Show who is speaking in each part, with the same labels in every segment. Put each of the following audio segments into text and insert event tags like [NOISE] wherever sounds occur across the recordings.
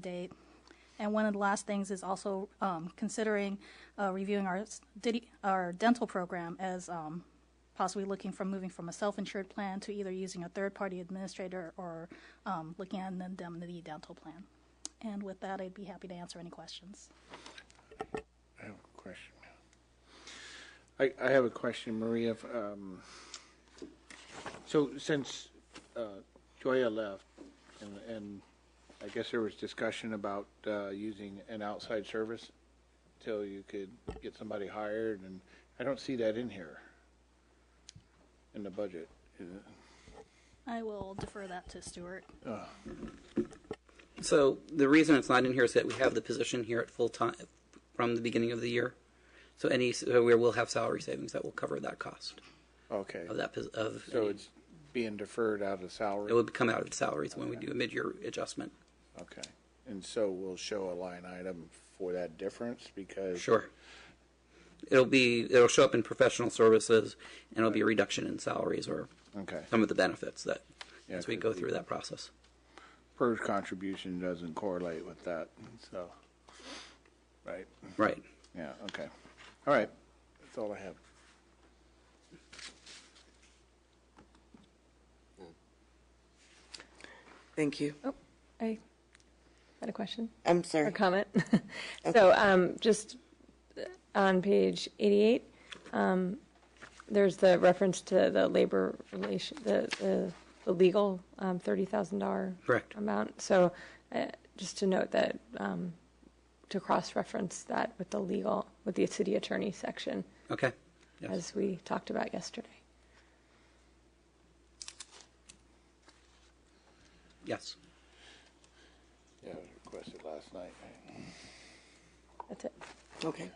Speaker 1: date. And one of the last things is also um, considering uh, reviewing our s- didi- our dental program as um, possibly looking from moving from a self-insured plan to either using a third-party administrator or um, looking at an indemnity dental plan. And with that, I'd be happy to answer any questions.
Speaker 2: I have a question. I, I have a question, Maria. if, Um, so since uh, Joya left, and, and I guess there was discussion about uh, using an outside service till you could get somebody hired, and I don't see that in here in the budget. Is it?
Speaker 1: I will defer that to Stuart.
Speaker 3: So the reason it's not in here is that we have the position here at full time from the beginning of the year. So any, so we will have salary savings that will cover that cost
Speaker 2: Okay.
Speaker 3: of Oh, that, pos- of,
Speaker 2: So it's being deferred out of salary.
Speaker 3: it would come out of the salaries when we do a mid-year adjustment.
Speaker 2: okay. And so we'll show a line item for that difference because
Speaker 3: Sure. It'll be, it'll show up in professional services and it'll be a reduction in salaries or
Speaker 2: Okay.
Speaker 3: some of the benefits that,
Speaker 2: Yeah,
Speaker 3: as we
Speaker 2: 'cause
Speaker 3: go
Speaker 2: we-
Speaker 3: through that process.
Speaker 2: PERS contribution doesn't correlate with that, so, right,
Speaker 3: Right.
Speaker 2: yeah, okay. All right, that's all I have.
Speaker 4: Thank you.
Speaker 5: I had a question
Speaker 4: I'm
Speaker 5: or
Speaker 4: sorry.
Speaker 5: comment. [LAUGHS] So um, just on page 88, um, there's the reference to the labor relation, the- the the legal um, $30,000
Speaker 3: Correct.
Speaker 5: amount. So uh, just to note that, um, to cross-reference that with the legal, with the city attorney section,
Speaker 3: Okay. Yes.
Speaker 5: as we talked about yesterday.
Speaker 3: Yes.
Speaker 2: Yeah, requested last night.
Speaker 5: That's it.
Speaker 4: Okay.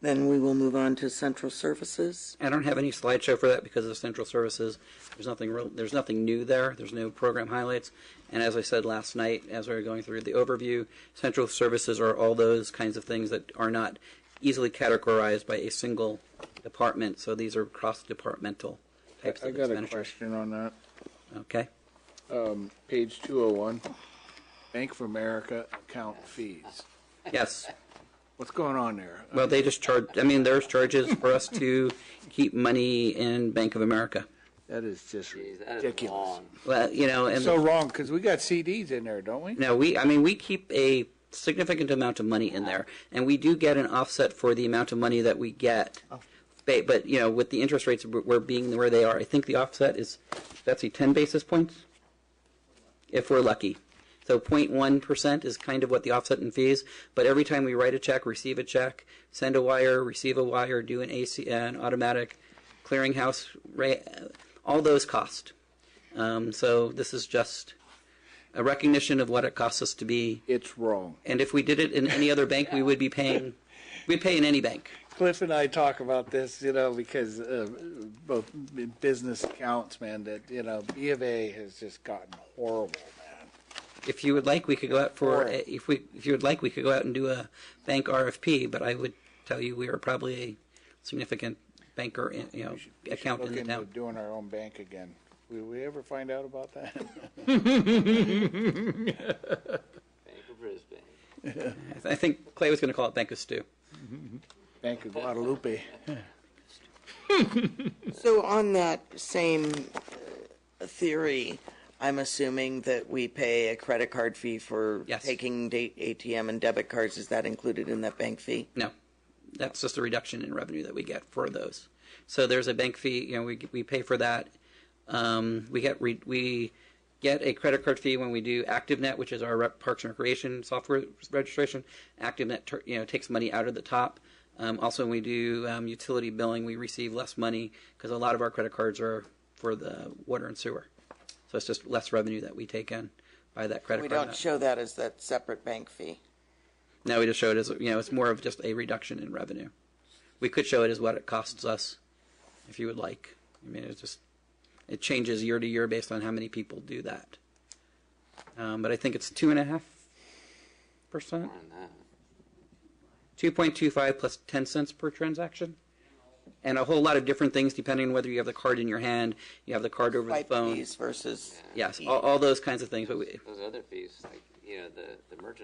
Speaker 4: Then we will move on to central services.
Speaker 3: I don't have any slideshow for that because of central services. There's nothing real, there's nothing new there. There's no program highlights. And as I said last night, as we were going through the overview, central services are all those kinds of things that are not easily categorized by a single department. So these are cross-departmental types
Speaker 2: I
Speaker 3: of
Speaker 2: got a
Speaker 3: expenditures.
Speaker 2: question on that,
Speaker 3: Okay.
Speaker 2: page two oh one, Bank of America account fees.
Speaker 3: Yes.
Speaker 2: What's going on there?
Speaker 3: Well, they just charge, I mean, there's charges for us to keep money in Bank of America.
Speaker 2: That is just
Speaker 6: Jeez, that is
Speaker 2: ridiculous.
Speaker 6: long.
Speaker 3: Well, you know, and.
Speaker 2: So wrong, because we got CDs in there, don't we?
Speaker 3: No, we, I mean, we keep a significant amount of money in there, and we do get an offset for the amount of money that we get. Ba- But, you know, with the interest rates we're we're being where they are, I think the offset is, Betsy, 10 basis points? If we're lucky. So 0.1% is kind of what the offset in fees, but every time we write a check, receive a check, send a wire, receive a wire, do an AC, an automatic clearinghouse, ra- all those cost. Um, So this is just a recognition of what it costs us to be.
Speaker 2: It's wrong.
Speaker 3: And if we did it in any other bank, we would be paying, we'd pay in any bank.
Speaker 2: Cliff and I talk about this, you know, because uh, both b- business accounts, man, that, you know, B of A has just gotten horrible, man.
Speaker 3: If you would like, we could go out for,
Speaker 2: Right.
Speaker 3: if we, if you would like, we could go out and do a bank RFP, but I would tell you we are probably a significant banker, in- you know, account in
Speaker 2: Look
Speaker 3: the
Speaker 2: into
Speaker 3: town.
Speaker 2: doing our own bank again. Will we ever find out about that? [LAUGHS]
Speaker 6: Bank of Brisbane.
Speaker 3: I th- I think Clay was going to call it Bank of Stew.
Speaker 2: Bank of Guadalupe.
Speaker 4: So on that same uh, theory, I'm assuming that we pay a credit card fee for
Speaker 3: Yes.
Speaker 4: taking da- ATM and debit cards. Is that included in that bank fee?
Speaker 3: No, that's just a reduction in revenue that we get for those. So there's a bank fee. You know, we we pay for that. Um, we get re- we get a credit card fee when we do ActiveNet, which is our rep- Parks and Recreation software registration. ActiveNet, tur- you know, takes money out of the top. Um, also, when we do um, utility billing, we receive less money because a lot of our credit cards are for the water and sewer. So it's just less revenue that we take in by that credit
Speaker 4: We
Speaker 3: card.
Speaker 4: don't show that as that separate bank fee.
Speaker 3: No, we just show it as you know, it's more of just a reduction in revenue. We could show it as what it costs us, if you would like. I mean, it's just it changes year to year based on how many people do that. Um, but I think it's two and a half percent,
Speaker 6: More than that.
Speaker 3: two point two five plus ten cents per transaction, and a whole lot of different things depending on whether you have the card in your hand, you have the card over the
Speaker 4: Swipe
Speaker 3: phone.
Speaker 4: fees versus
Speaker 3: Yes, all, all those kinds of things. But we,
Speaker 6: Those other fees, like you know, the, the merchant